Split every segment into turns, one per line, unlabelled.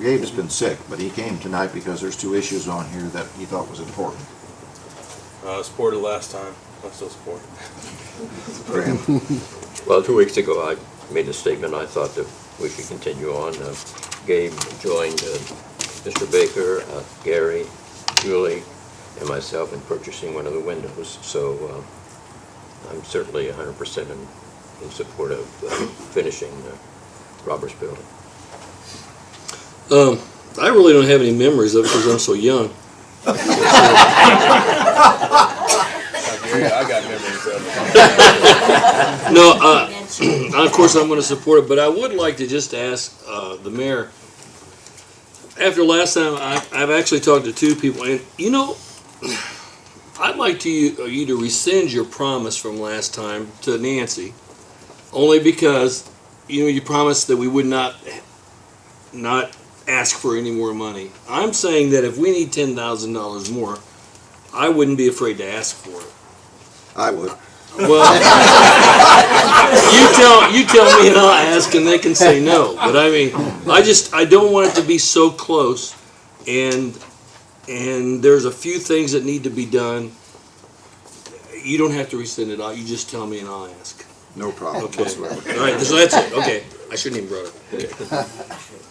Gabe's been sick, but he came tonight because there's two issues on here that he thought was important.
Uh, supported last time. I still support.
Graham,
Well, two weeks ago, I made a statement, I thought that we should continue on. Uh, Gabe joined uh, Mr. Baker, uh, Gary, Julie, and myself in purchasing one of the windows, so uh, I'm certainly 100% in, in support of uh, finishing the Roberts Building.
Um, I really don't have any memories of it because I'm so young.
I hear ya. I got memories of it.
No, uh, of course I'm going to support it, but I would like to just ask uh, the mayor. After last time, I, I've actually talked to two people, and you know, I'd like to you, uh, you to rescind your promise from last time to Nancy, only because you know you promised that we would not not ask for any more money. I'm saying that if we need ten thousand dollars more, I wouldn't be afraid to ask for it.
I would.
Well, you tell you tell me, and I'll ask, and they can say no. But I mean, I just I don't want it to be so close, and and there's a few things that need to be done. You don't have to rescind it. I- You just tell me, and I'll ask.
No problem
Okay.
whatsoever.
All right, so that's it. Okay, I shouldn't even brought it.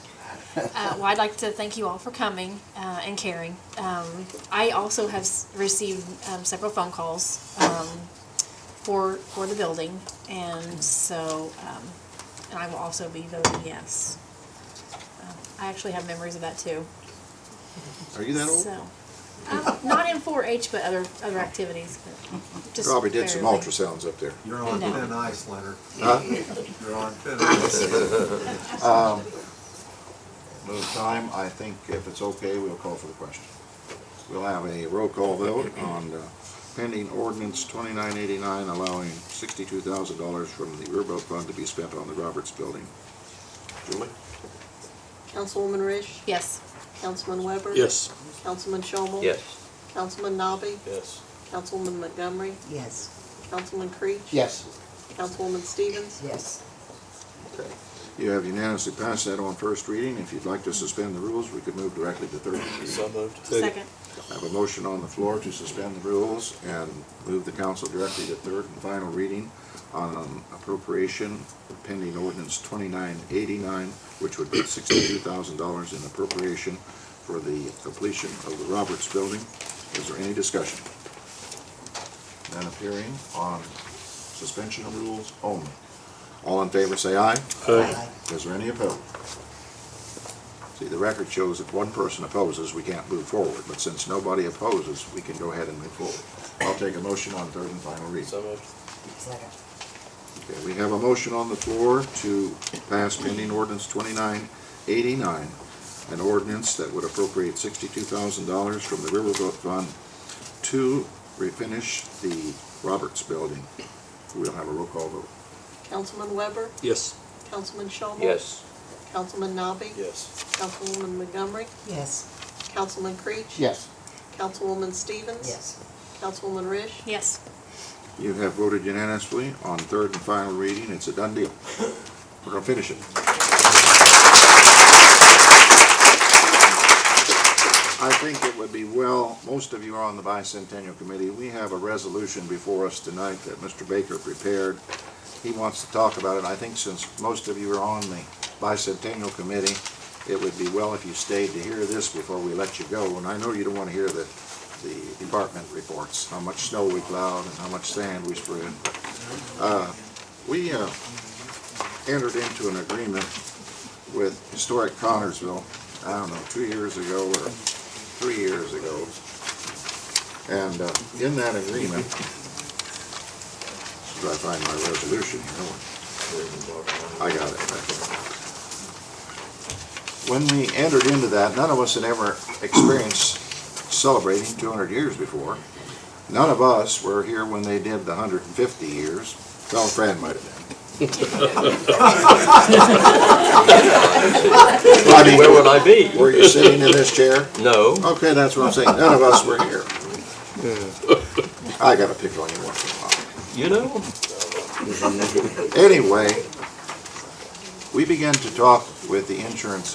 Uh, well, I'd like to thank you all for coming uh, and caring. Um, I also have s- received um, several phone calls um, for for the building, and so um, and I will also be voting yes. Um, I actually have memories of that too.
Are you that old?
So, um, not in 4-H, but other other activities. But just
Probably did some
barely.
ultrasounds up there.
You're on
No.
thin ice, Leonard.
Huh?
You're on thin ice.
Move time, I think if it's okay, we'll call for the question. We'll have a roll call vote on uh, pending ordinance twenty-nine eighty-nine allowing sixty-two thousand dollars from the Riverboat Fund to be spent on the Roberts Building. Julie?
Councilwoman Rish?
Yes.
Councilman Weber?
Yes.
Councilman Shomel?
Yes,
Councilman Nobby?
Yes.
Councilwoman Montgomery?
Yes.
Councilman Creech?
Yes.
Councilwoman Stevens?
Yes.
Okay. You have unanimously passed that on first reading. If you'd like to suspend the rules, we could move directly to third reading.
So moved.
Second.
I have a motion on the floor to suspend the rules and move the council directly to third and final reading on um, appropriation pending ordinance twenty-nine eighty-nine, which would be sixty-two thousand dollars in appropriation for the completion of the Roberts Building. Is there any discussion? None appearing on suspension of rules only. All in favor, say aye.
Aye.
Is there any opposed? See, the record shows if one person opposes, we can't move forward, but since nobody opposes, we can go ahead and move forward. I'll take a motion on third and final reading.
So moved.
Second.
Okay, we have a motion on the floor to pass pending ordinance twenty-nine eighty-nine, an ordinance that would appropriate sixty-two thousand dollars from the Riverboat Fund to refinish the Roberts Building. We'll have a roll call vote.
Councilman Weber?
Yes.
Councilman Shomel?
yes,
Councilman Nobby?
Yes.
Councilwoman Montgomery?
Yes.
Councilman Creech?
Yes.
Councilwoman Stevens?
Yes.
Councilwoman Rish?
Yes.
You have voted unanimously on third and final reading. It's a done deal. We're gonna finish it. I think it would be well, most of you are on the bicentennial committee. We have a resolution before us tonight that Mr. Baker prepared. He wants to talk about it. I think since most of you are on the bicentennial committee, it would be well if you stayed to hear this before we let you go. And I know you don't want to hear the the department reports, how much snow we plowed and how much sand we spread. Uh, We uh, entered into an agreement with Historic Connersville, I don't know, two years ago or three years ago. And uh, in that agreement, should I find my resolution here? I got it back there when we entered into that, none of us had ever experienced celebrating 200 years before. None of us were here when they did the 150 years. Well, Fran might have been. I mean,
where would I be?
Were you sitting in this chair?
No,
Okay, that's what I'm saying. None of us were here. I gotta pick on you once in a while.
you know?
Anyway, we began to talk with the insurance